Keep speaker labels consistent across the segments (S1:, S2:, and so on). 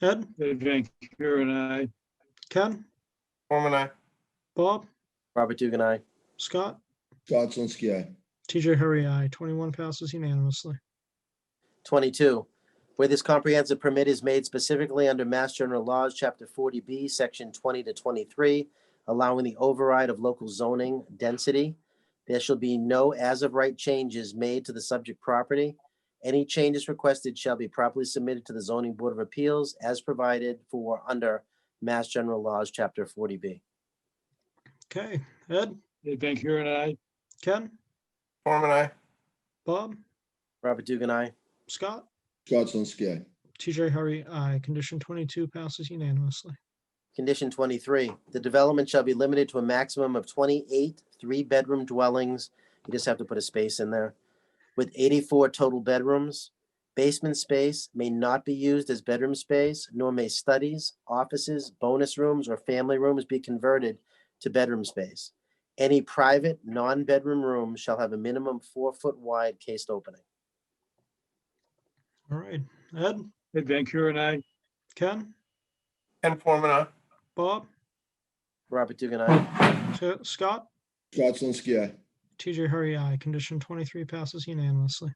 S1: Ed,
S2: Ed Van Kuren, I.
S1: Ken,
S3: Mormon, I.
S1: Bob,
S4: Robert Dugan, I.
S1: Scott,
S5: Scott Zelinski, aye.
S1: TJ Hurry, I. 21 passes unanimously.
S4: 22, where this comprehensive permit is made specifically under Mass General Laws, Chapter 40B, Section 20 to 23, allowing the override of local zoning density, there shall be no as-of-right changes made to the subject property. Any changes requested shall be properly submitted to the Zoning Board of Appeals as provided for under Mass General Laws, Chapter 40B.
S1: Okay, Ed,
S2: Ed Van Kuren, I.
S1: Ken,
S3: Mormon, I.
S1: Bob,
S4: Robert Dugan, I.
S1: Scott,
S5: Scott Zelinski, aye.
S1: TJ Hurry, I. Condition 22 passes unanimously.
S4: Condition 23, the development shall be limited to a maximum of 28 three-bedroom dwellings. You just have to put a space in there. With 84 total bedrooms. Basement space may not be used as bedroom space, nor may studies, offices, bonus rooms, or family rooms be converted to bedroom space. Any private, non-bedroom room shall have a minimum four-foot wide cased opening.
S1: All right, Ed,
S2: Ed Van Kuren, I.
S1: Ken,
S3: Ken Forman, I.
S1: Bob,
S4: Robert Dugan, I.
S1: T- Scott,
S5: Scott Zelinski, aye.
S1: TJ Hurry, I. Condition 23 passes unanimously.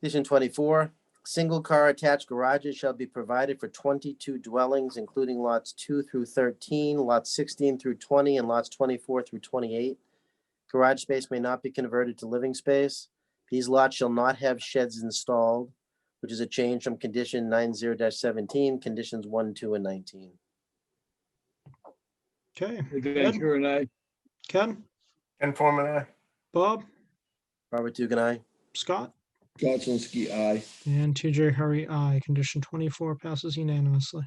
S4: Condition twenty-four, single-car attached garages shall be provided for twenty-two dwellings, including lots two through thirteen, lots sixteen through twenty, and lots twenty-four through twenty-eight. Garage space may not be converted to living space. These lots shall not have sheds installed, which is a change from condition nine zero seventeen, conditions one, two, and nineteen.
S1: Okay,
S2: Ed Van
S1: Ed?
S2: Kuren, I.
S1: Ken,
S3: Ken Forman, I.
S1: Bob,
S4: Robert Dugan, I.
S1: Scott,
S5: Scott Zelinski, aye.
S1: and TJ Hurry, I. Condition 24 passes unanimously.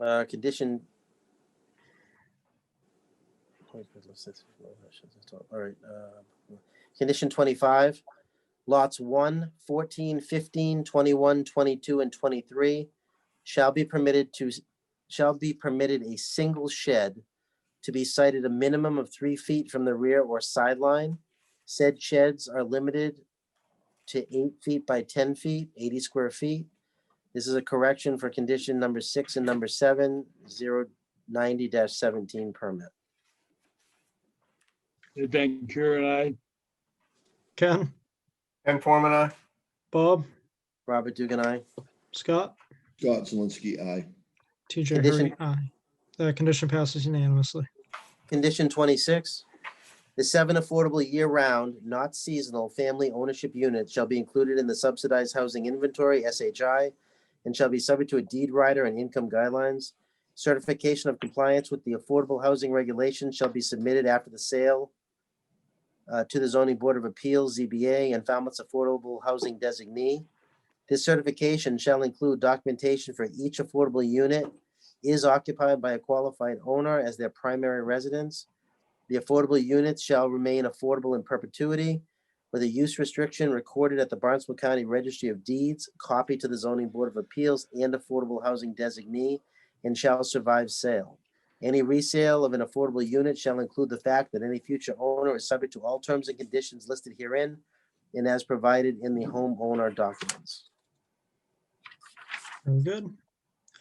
S4: Uh, condition. All right, uh, condition twenty-five, lots 1, 14, 15, 21, 22, and twenty-three shall be permitted to, s- shall be permitted a single shed to be sited a minimum of three feet from the rear or sideline. Said sheds are limited to eight feet by ten feet, eighty square feet. This is a correction for condition number six and number seven, zero ninety dash seventeen permit.
S2: Ed Van Kuren, I.
S1: Ken,
S3: Ken Forman, I.
S1: Bob,
S4: Robert Dugan, I.
S1: Scott,
S5: Scott Zelinski, aye.
S1: TJ Hurry,
S4: Condition-
S1: aye. The condition passes unanimously.
S4: Condition twenty-six. The seven affordable year-round, not seasonal, family ownership units shall be included in the subsidized housing inventory, SHI, and shall be subject to a deed rider and income guidelines. Certification of compliance with the affordable housing regulations shall be submitted after the sale uh, to the zoning board of appeals, ZBA, and Falmouth's affordable housing designee. This certification shall include documentation for each affordable unit is occupied by a qualified owner as their primary residence. The affordable units shall remain affordable in perpetuity with a use restriction recorded at the Barnstable County Registry of Deeds, copied to the Zoning Board of Appeals and Affordable Housing Designee, and shall survive sale. Any resale of an affordable unit shall include the fact that any future owner is subject to all terms and conditions listed herein and as provided in the homeowner documents.
S1: Very good.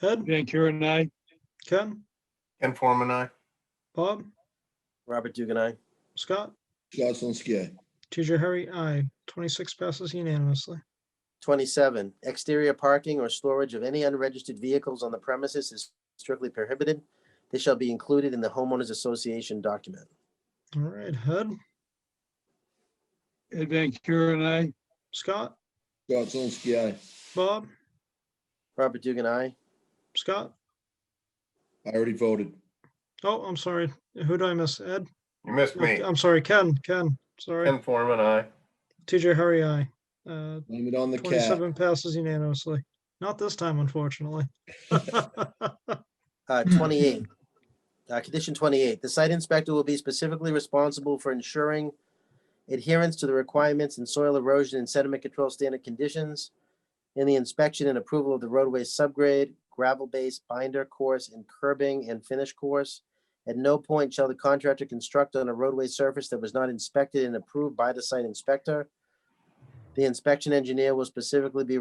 S2: Ed
S1: Ed,
S2: Van Kuren, I.
S1: Ken,
S3: Ken Forman, I.
S1: Bob,
S4: Robert Dugan, I.
S1: Scott,
S5: Scott Zelinski, aye.
S1: TJ Hurry, I. 26 passes unanimously.
S4: 27, exterior parking or storage of any unregistered vehicles on the premises is strictly prohibited. They shall be included in the homeowners association document.
S1: All right, Ed,
S2: Ed Van Kuren, I.
S1: Scott,
S5: Scott Zelinski, aye.
S1: Bob,
S4: Robert Dugan, I.
S1: Scott.
S5: I already voted.
S1: Oh, I'm sorry. Who do I miss? Ed?
S3: You missed
S1: Oh,
S3: me.
S1: I'm sorry, Ken, Ken, sorry.
S3: Ken Forman, I.
S1: TJ Hurry, I. Uh,
S5: Blame it on the cat.
S1: 27 passes unanimously. Not this time, unfortunately.
S4: Uh, 28, uh, condition 28, the site inspector will be specifically responsible for ensuring adherence to the requirements in soil erosion and sediment control standard conditions in the inspection and approval of the roadway subgrade, gravel base, binder course, and curbing and finish course. At no point shall the contractor construct on a roadway surface that was not inspected and approved by the site inspector. The inspection engineer will specifically be